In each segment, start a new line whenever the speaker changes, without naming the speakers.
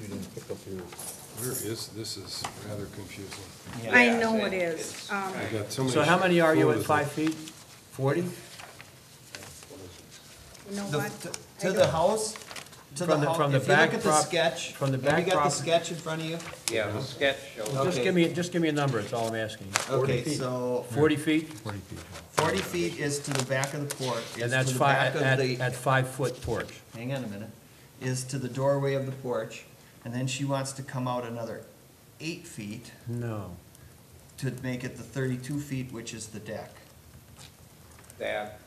You didn't pick up your,
Where is, this is rather confusing.
Yeah,
I know
it's-
it is.
it's-
Um,
I got so many.
So how many are you at
photos.
five feet? Forty?
You know
The-
what?
to-
I
To the
don't-
house, to the
From the- from
house,
the
if you look
back
at the
prop-
sketch,
from the
have you
back
got the
prop-
sketch in front of you?
Yeah, the sketch shows,
Just
Okay.
give me, just give me a number, it's all I'm asking.
Okay, so
Forty feet,
forty feet is to the back of the porch, is to
and that's
the
five,
back of
at,
the,
at five foot porch.
hang on a minute, is to the doorway of the porch, and then she wants to come out another eight feet
No.
to make it the thirty-two feet, which is the deck.
that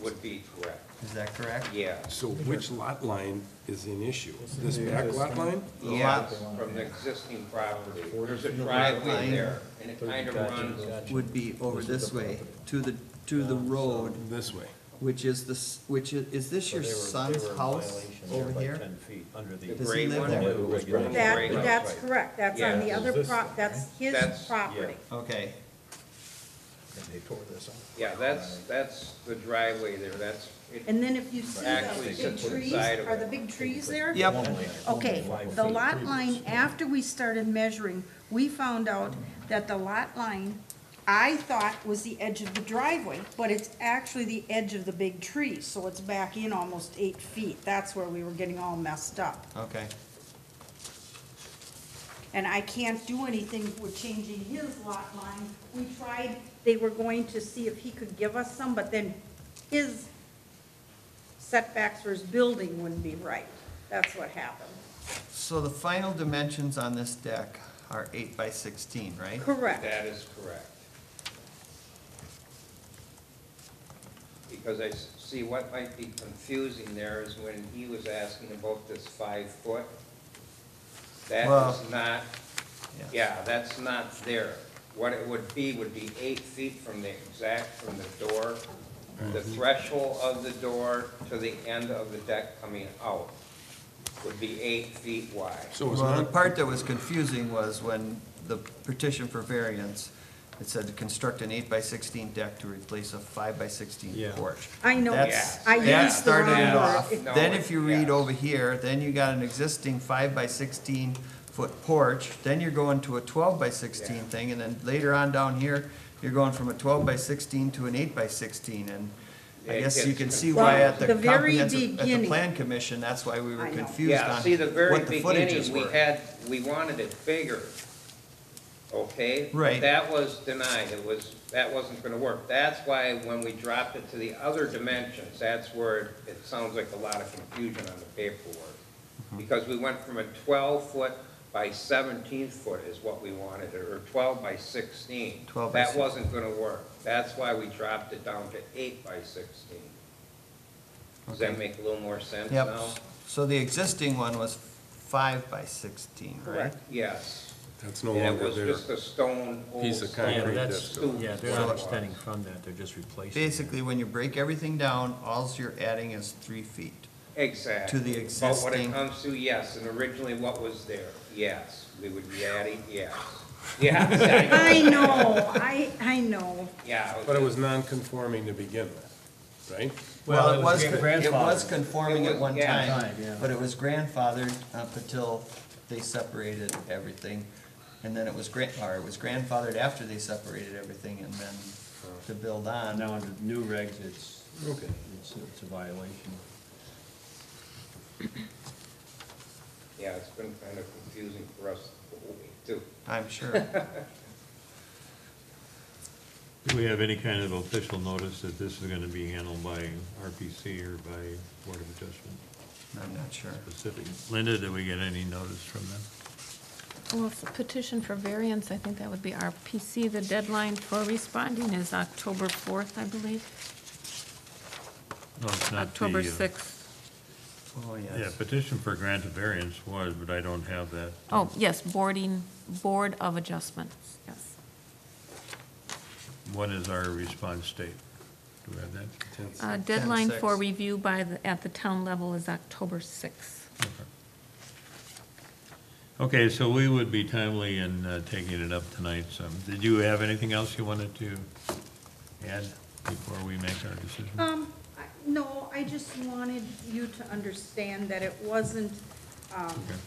would be correct,
Is that correct?
yeah.
So which lot line is in issue? This back lot line?
Yeah,
lot-
from the existing property. There's
Forty
a
feet.
driveway
Line.
there, and it kind of
Gotcha,
runs,
gotcha.
Would be over this way, to the, to the road,
This way.
which is this, which is, is this your
They were- they
son's
were in
house
violation there
over
by
here?
Ten feet under
the
Does he
gray
live
one.
there?
was running
That,
gray.
that's correct, that's on the
Yeah.
other
Is this
prop, that's his
That's-
property.
Okay,
and they tore this out.
Yeah, that's, that's the driveway there, that's, it-
And then if you see
Actually,
the big
sits
trees,
inside of
are
it.
the big trees there?
yep,
Okay, the lot line, after we started measuring, we found out that the lot line, I thought was the edge of the driveway, but it's actually the edge of the big tree, so it's back in almost eight feet. That's where we were getting all messed up.
okay.
And I can't do anything with changing his lot line. We tried, they were going to see if he could give us some, but then his setbacks for his building wouldn't be right. That's what happened.
So the final dimensions on this deck are eight by sixteen, right?
Correct.
that is correct. Because I s- see what might be confusing there is when he was asking about this five foot. That
Well-
is not Yeah, that's not there. What it would be would be eight feet from the exact, from the door, the threshold of the door to the end of the deck coming out would be eight feet wide.
So it's
Well, the
not,
part that was confusing was when the petition for variance, it said to construct an eight by sixteen deck to replace a five by sixteen
Yeah.
porch.
I know,
That's-
I
That
used the wrong
started it off.
word.
No,
Then if you read
yeah.
over here, then you got an existing five by sixteen foot porch, then you're going to a twelve by sixteen
Yeah.
thing, and then later on down here, you're going from a twelve by sixteen to an eight by sixteen, and I
It
guess you
gets
can see why at the
confused. Well, the very
comprehensive, at the
beginning-
plan commission, that's why we were
I know.
confused on
Yeah, see, the very
what the footages
beginning, we
were.
had, we wanted it bigger, okay? But
Right.
That was denied, it was, that wasn't gonna work. That's why when we dropped it to the other dimensions, that's where it- it sounds like a lot of confusion on the paperwork.
Mm-hmm.
Because we went from a twelve foot by seventeen foot is what we wanted, or twelve by sixteen.
12 by
That
16.
wasn't gonna work, that's why we dropped it down to eight by sixteen. Does that
Okay.
make a little more sense now?
Yep, so the existing one was five by sixteen, right?
Correct.
Yes.
that's no
Yeah, it
longer
was
there.
just a stone. old
Piece of
stone
Yeah,
Concrete,
that's,
stoop.
yeah, they're not extending from that, they're just replacing. it.
Basically, when you break everything down, alls you're adding is three feet.
Exactly.
to the
But when
existing-
it comes to, yes, and originally what was there, yes, we would be adding, yes. Yes,
I know, I, I know.
I- yeah.
But it was non-conforming to begin with, right?
Well, it was,
grandfathered.
it was conforming
It
at
was-
one
yeah.
time,
Time, yeah.
but it was grandfathered up until they separated everything. And then it was gran, or it was grandfathered after they separated everything and then to build on.
Now under new regs, it's,
Okay.
it's, it's a violation.
Yeah, it's been kind of confusing for us the whole way, too.
I'm sure.
Do we have any kind of official notice that this is gonna be handled by RPC or by Board of Adjustment
I'm not sure.
specific? Linda, did we get any notice from them?
Well, if the petition for variance, I think that would be our PC. The deadline for responding is October 4th, I believe,
No, it's not the,
October
uh,
6th.
Oh,
Yeah,
yes.
petition for grant of variance was, but I don't have that.
Oh, yes, boarding, Board of Adjustments, yes.
What is our response date? Do we have that?
Uh, Deadline for
6th.
review by, the at the town level is October 6th.
Okay, so we would be timely in uh, taking it up tonight, so, did you have anything else you wanted to add before we make our decision?
Um, I- no, I just wanted you to understand that it wasn't, um,
Okay.